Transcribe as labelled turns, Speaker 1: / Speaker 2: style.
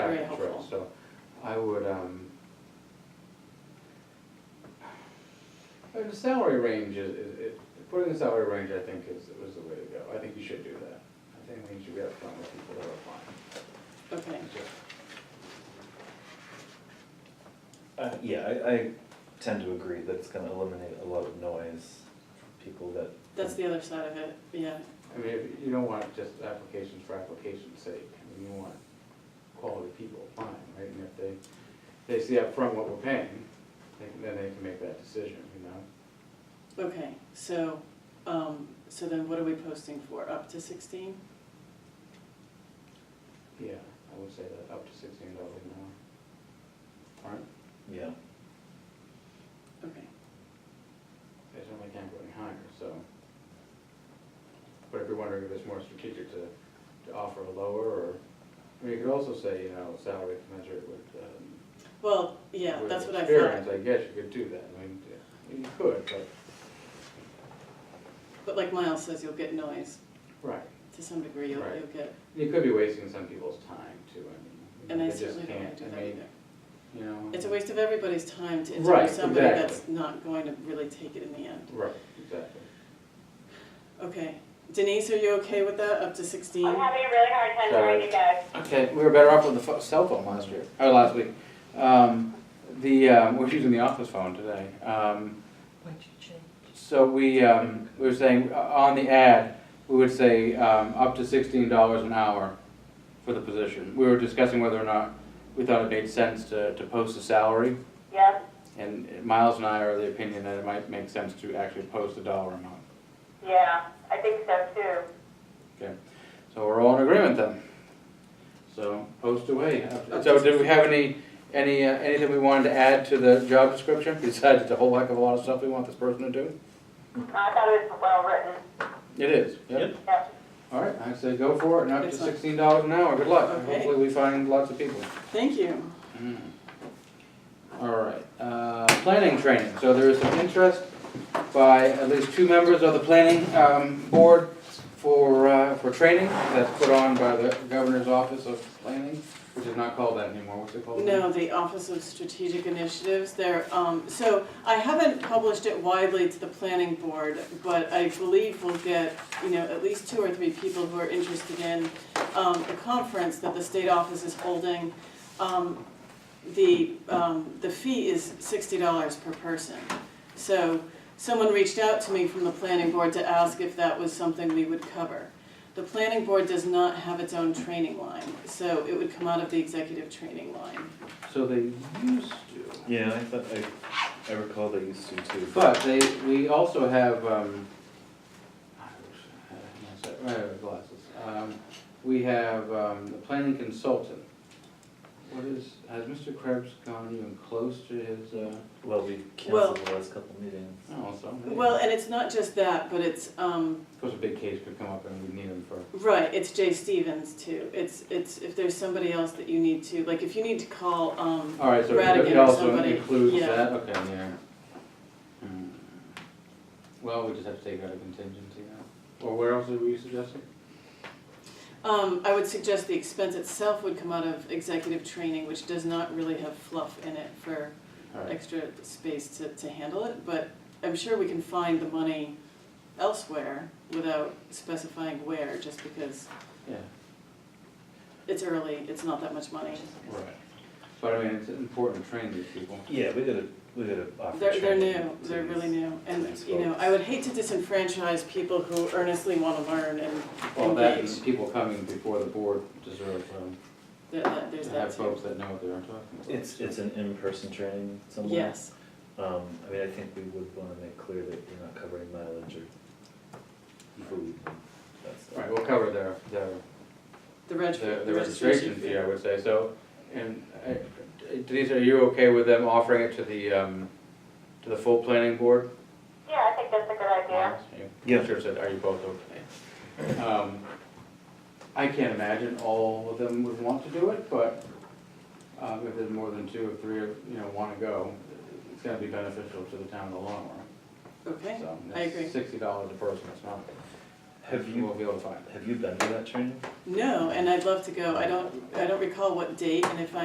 Speaker 1: helpful.
Speaker 2: contract, so I would, um, uh, the salary range is, is- it, putting the salary range, I think, is, was the way to go. I think you should do that. I think we should be upfront with people that are
Speaker 1: Okay,
Speaker 2: applying.
Speaker 3: Uh, yeah, I, I tend to agree that it's gonna eliminate a lot of noise from people that.
Speaker 1: that's the other side of it, yeah.
Speaker 2: I mean, if- you don't want just applications for application's sake, I mean, you want quality people applying, right? And if they, they see upfront what we're paying, they can- then they can make that decision, you know?
Speaker 1: Okay, so, um, so then what are we posting for, up to sixteen?
Speaker 2: Yeah, I would say that up to sixteen dollars an hour. Alright,
Speaker 3: Yeah,
Speaker 1: Okay,
Speaker 2: they certainly can't go any higher, so. But if you're wondering if it's more strategic to, to offer a lower, or, I mean, you could also say, you know, salary commensurate with, um,
Speaker 1: well, yeah,
Speaker 2: with
Speaker 1: that's what I
Speaker 2: Experience,
Speaker 1: thought,
Speaker 2: I guess you could do that, I mean, you could, but,
Speaker 1: but like Miles says, you'll get noise,
Speaker 2: right,
Speaker 1: to some degree, you'll,
Speaker 2: Right.
Speaker 1: you'll get,
Speaker 2: you could be wasting some people's time too, I mean.
Speaker 1: and I
Speaker 2: they just
Speaker 1: certainly don't wanna
Speaker 2: can't.
Speaker 1: do
Speaker 2: I
Speaker 1: that
Speaker 2: mean,
Speaker 1: either.
Speaker 2: You know.
Speaker 1: It's a waste of everybody's time to
Speaker 2: Right,
Speaker 1: interview somebody
Speaker 2: exactly.
Speaker 1: that's not going to really take it in the end.
Speaker 2: Right, exactly.
Speaker 1: Okay, Denise, are you okay with that, up to sixteen?
Speaker 4: I'm having a really hard time hearing you guys.
Speaker 2: Okay, we were better off with the pho- cell phone last year, or last week. Um, the, um, we're using the office phone today. Um,
Speaker 5: What'd you change?
Speaker 2: so we, um, we were saying, uh, on the ad, we would say, um, up to sixteen dollars an hour for the position. We were discussing whether or not we thought it made sense to, to post a salary.
Speaker 4: Yep,
Speaker 2: And Miles and I are of the opinion that it might make sense to actually post a dollar amount.
Speaker 4: yeah, I think so too.
Speaker 2: Okay, so we're all in agreement then. So post away. So did we have any, any, uh, anything we wanted to add to the job description besides the whole heck of a lot of stuff we want this person to do?
Speaker 4: I thought it was well written,
Speaker 2: It is, yep.
Speaker 3: Yep.
Speaker 4: yep.
Speaker 2: All right, I say go for it, and up to
Speaker 1: Excellent.
Speaker 2: sixteen dollars an hour, good luck.
Speaker 1: Okay.
Speaker 2: Hopefully we find lots of people.
Speaker 1: Thank you.
Speaker 2: Mm. All right, uh, planning training, so there is some interest by at least two members of the planning, um, board for, uh, for training that's put on by the governor's office of planning, which is not called that anymore, what's it called?
Speaker 1: No, the Office of Strategic Initiatives, there, um, so I haven't published it widely to the planning board, but I believe we'll get, you know, at least two or three people who are interested in, um, the conference that the state office is holding. Um, the, um, the fee is sixty dollars per person. So, someone reached out to me from the planning board to ask if that was something we would cover. The planning board does not have its own training line, so it would come out of the executive training line.
Speaker 2: So they used to,
Speaker 3: yeah, I thought, I, I recall they used to too.
Speaker 2: but they, we also have, um, I wish I had my set- my glasses, um, we have, um, the planning consultant. What is, has Mr. Krebs gone even close to his, uh,
Speaker 3: Well, we
Speaker 1: Well-
Speaker 3: canceled the last couple meetings.
Speaker 2: oh, something?
Speaker 1: Well, and it's not just that, but it's, um,
Speaker 2: Of course, a big case could come up and we'd need them for,
Speaker 1: right, it's Jay Stevens too. It's, it's, if there's somebody else that you need to, like, if you need to call, um,
Speaker 2: all right, so it-
Speaker 1: Radigan
Speaker 2: it
Speaker 1: or
Speaker 2: also
Speaker 1: somebody,
Speaker 2: includes
Speaker 1: yeah.
Speaker 2: that, okay, yeah. Hmm. Well, we just have to take out a contingency now. Or where else were you suggesting?
Speaker 1: um, I would suggest the expense itself would come out of executive training, which does not really have fluff in it for
Speaker 2: All right,
Speaker 1: extra space to, to handle it, but I'm sure we can find the money elsewhere without specifying where, just because
Speaker 2: yeah,
Speaker 1: it's early, it's not that much money.
Speaker 2: right. But I mean, it's important to train these people.
Speaker 3: Yeah, we gotta, we gotta offer
Speaker 1: They're, they're
Speaker 3: training
Speaker 1: new,
Speaker 3: to
Speaker 1: they're
Speaker 3: these-
Speaker 1: really new, and,
Speaker 3: Thanks,
Speaker 1: you know,
Speaker 3: folks.
Speaker 1: I would hate to disenfranchise people who earnestly wanna learn and
Speaker 2: Well, that and
Speaker 1: engage.
Speaker 2: people coming before the board deserve, um,
Speaker 1: That- that- There's
Speaker 2: to
Speaker 1: that
Speaker 2: have
Speaker 1: too.
Speaker 2: folks that know what they're talking about.
Speaker 3: It's, it's an in-person training somewhere.
Speaker 1: Yes,
Speaker 3: Um, I mean, I think we would wanna make clear that you're not covering mileage or food and that stuff.
Speaker 2: All right, we'll cover their, their
Speaker 1: the reg,
Speaker 2: the,
Speaker 1: the
Speaker 2: the registration fee, I
Speaker 1: fee.
Speaker 2: would say, so, and uh, Denise, are you okay with them offering it to the, um, to the full planning board?
Speaker 4: Yeah, I think that's a good idea.
Speaker 3: Yeah.
Speaker 2: Sure said, are you both okay? Um, I can't imagine all of them would want to do it, but, um, if there's more than two or three, of you know, wanna go, it's gonna be beneficial to the town in the long run,
Speaker 1: Okay,
Speaker 2: so.
Speaker 1: I agree.
Speaker 2: that's Sixty dollars a person, it's not,
Speaker 3: Have
Speaker 2: you
Speaker 3: you,
Speaker 2: won't be able to find it.
Speaker 3: have you been to that training?
Speaker 1: no, and I'd love to go, I don't, I don't recall what date, and if I